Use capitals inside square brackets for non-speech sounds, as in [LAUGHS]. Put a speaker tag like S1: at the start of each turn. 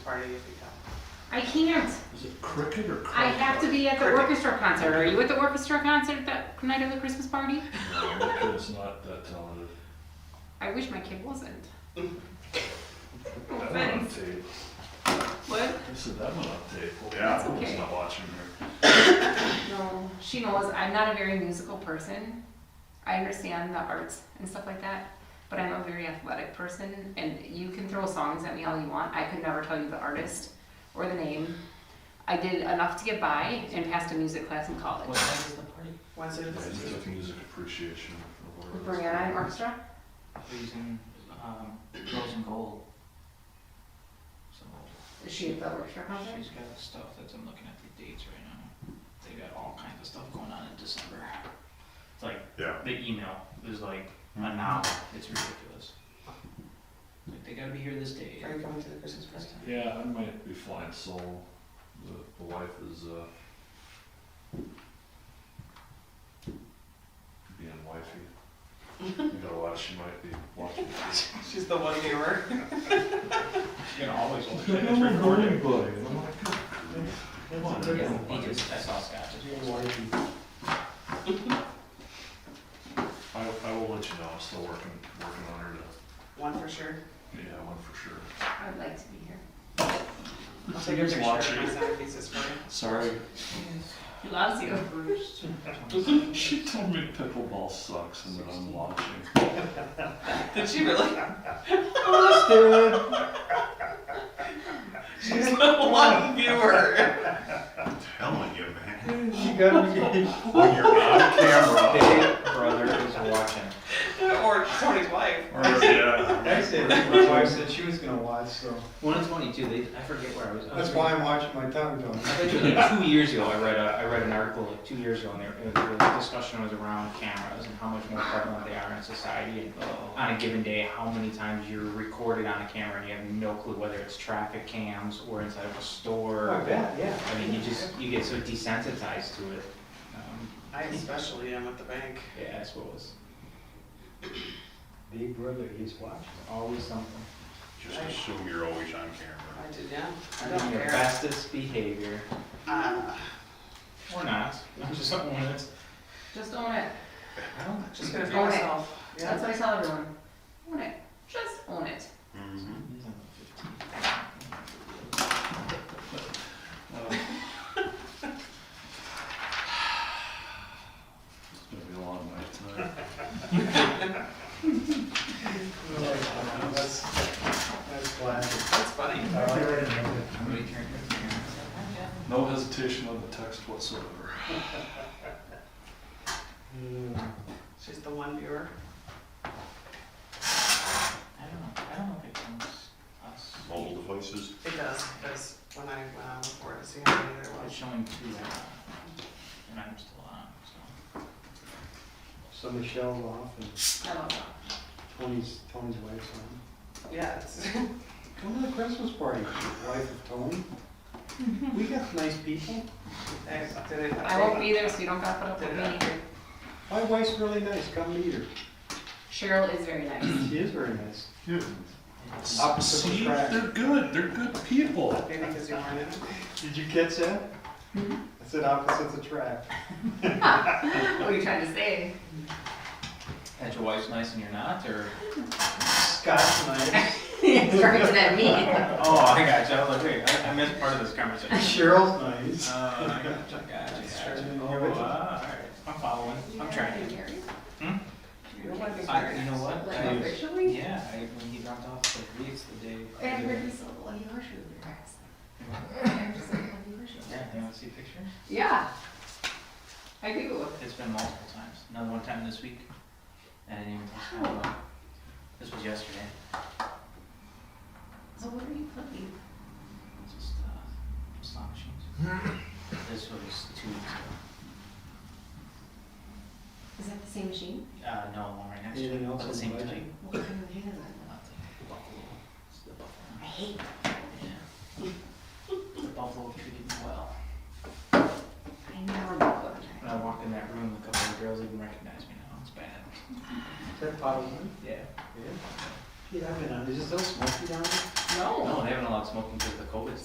S1: party if you come.
S2: I can't.
S3: Is it cricket or cricket?
S2: I have to be at the
S1: Cricket.
S2: orchestra concert. Are you at the orchestra concert that night of the Christmas party?
S3: No, the kid's not that talented.
S2: I wish my kid wasn't. No
S3: That one on
S2: offense.
S3: tape.
S2: What?
S3: I said that one on tape. Well,
S4: Yeah.
S3: the kid's
S2: Okay.
S3: not watching her.
S2: No, she knows I'm not a very musical person. I understand the arts and stuff like that, but I'm a very athletic person, and you can throw songs at me all you want. I could never tell you the artist or the name. I did enough to get by and passed a music class in college.
S5: What time is the party?
S1: Wednesday the
S3: Yeah, it's
S1: fifteenth.
S3: like music appreciation. or whatever it's
S2: Brianna and
S3: called.
S2: Orchestra?
S5: We're using, um, girls in gold. So
S2: Is she at the orchestra concert?
S5: She's got stuff that's, I'm looking at the dates right now. They got all kinds of stuff going on in December. It's like,
S4: Yeah.
S5: the email is like an hour. It's ridiculous. Like, they gotta be here this day.
S1: Are you coming to the Christmas
S5: This
S1: party? [LAUGHS]
S5: time.
S3: Yeah, I might be flying solo. The, the wife is, uh, being wifey. You gotta watch, she might be watching.
S1: She's the one viewer.
S5: You know, [LAUGHS] always want to
S3: No,
S5: say
S3: no,
S5: it's
S3: no,
S5: recorded.
S3: nobody. And I'm like, "God, come on,
S5: Yeah,
S3: everyone
S5: he
S3: watches."
S5: just- I saw Scott just-
S3: I, I will let you know, I'm still working, working on her to,
S1: One for sure.
S3: yeah, one for sure.
S2: I would like to be here.
S1: I'll take a
S3: He's
S1: picture of my
S3: watching.
S1: seven pieces for you.
S3: Sorry.
S2: He loves you.
S5: [LAUGHS]
S6: [LAUGHS]
S3: She told me pickleball sucks and that I'm watching.
S1: [LAUGHS] Did she [LAUGHS] really? She's the one viewer.
S4: Telling you, man.
S6: You gotta be
S4: When you're on camera.
S6: big brother is watching.
S1: Or Tony's wife.
S4: Or, [LAUGHS] yeah.
S6: I said, my wife said she was gonna watch, so
S5: One and twenty-two, they, I forget where I was. I was
S6: that's why I'm watching my tongue down.
S5: I bet you, like two years ago, I read a, I read an article like two years ago, and there, it was, the discussion was around cameras and how much more prevalent they are in society, and on a given day, how many times you're recorded on a camera and you have no clue whether it's traffic cams or inside of a store.
S6: bet, Oh, yeah.
S5: I mean, you just, you get so desensitized to it. Um,
S1: I especially am at the bank.
S5: Yeah, that's what was,
S6: Big brother is watching.
S5: always something.
S4: Just assume you're always on camera.
S1: I did, yeah. I
S5: I'm
S1: don't
S5: in your
S1: care.
S5: bestest behavior,
S1: Uh,
S5: or not, I'm just something that's,
S2: Just own it.
S5: I don't,
S1: Just gonna be
S2: Own it.
S1: myself. Yeah.
S2: That's what I tell everyone. Own it. Just own it.
S4: Mm-hmm.
S3: It's gonna be a long night tonight.
S6: That's, that's classic.
S1: That's funny.
S6: I like it.
S5: somebody turned their cameras on.
S3: No hesitation on the text whatsoever.
S6: Mm.
S1: She's the one viewer.
S5: I don't know, I don't know if it comes us.
S4: Mobile devices.
S1: It does, because when I went on before to see how many there
S5: It's
S1: was.
S5: showing two, uh, and I'm still on, so.
S6: So Michelle's off and
S2: I love that.
S6: Tony's, Tony's wife's on.
S1: Yeah, it's, [LAUGHS]
S6: Come to the Christmas party, wife of Tony. We got nice people.
S1: I did it.
S2: I won't be there, so you don't gotta put up with me either.
S6: My wife's really nice, come meet her.
S2: Cheryl is very nice.
S1: [LAUGHS]
S6: She is very nice. Opposite
S3: See,
S6: attract.
S3: they're good, they're good people.
S1: Maybe because you weren't in it.
S6: Did you catch that? I said opposites attract.
S2: What are you trying
S1: [LAUGHS]
S2: to say?
S5: That your wife's nice and you're not, or?
S6: Scott's nice. [LAUGHS]
S2: Directed at me.
S5: Oh, I got you, I was like, wait, I, I missed part of this conversation.
S6: Cheryl's nice.
S5: Uh, I got you, I got you, I got you.
S6: Turn it
S5: Oh,
S6: over.
S5: alright, I'm following, I'm trying. Hmm?
S2: Your wife is
S5: I,
S2: very
S5: you know
S2: nice.
S5: what?
S2: Like
S5: I-
S2: officially?
S5: Yeah, I, when he dropped off the wreaths the day.
S2: And I heard you so, well, you are truly nice. [LAUGHS] I'm just like, well, you are truly
S5: Yeah,
S2: nice.
S5: you wanna see a picture?
S2: Yeah. I do.
S5: It's been multiple times, another one time this week, and I didn't even think about it. This was yesterday.
S2: So what are you putting?
S5: Just uh, slot machines. this was two weeks ago.
S2: Is that the same machine?
S5: Uh, no, one right next
S6: Anything
S5: to it, but
S6: else on
S5: the
S6: the
S5: same
S6: budget?
S5: type.
S2: What kind of machine is that?
S5: Not the buffalo. It's the buffalo.
S2: I hate that.
S5: Yeah. the buffalo treated me well.
S2: I never look good.
S5: When I walked in that room, a couple of the girls even recognized me now. It's bad.
S6: Is that bottle one?
S5: Yeah.
S6: Yeah, I've been on, is it still smoky down there?
S2: No.
S5: Uh, No, they haven't allowed smoking because of the COVID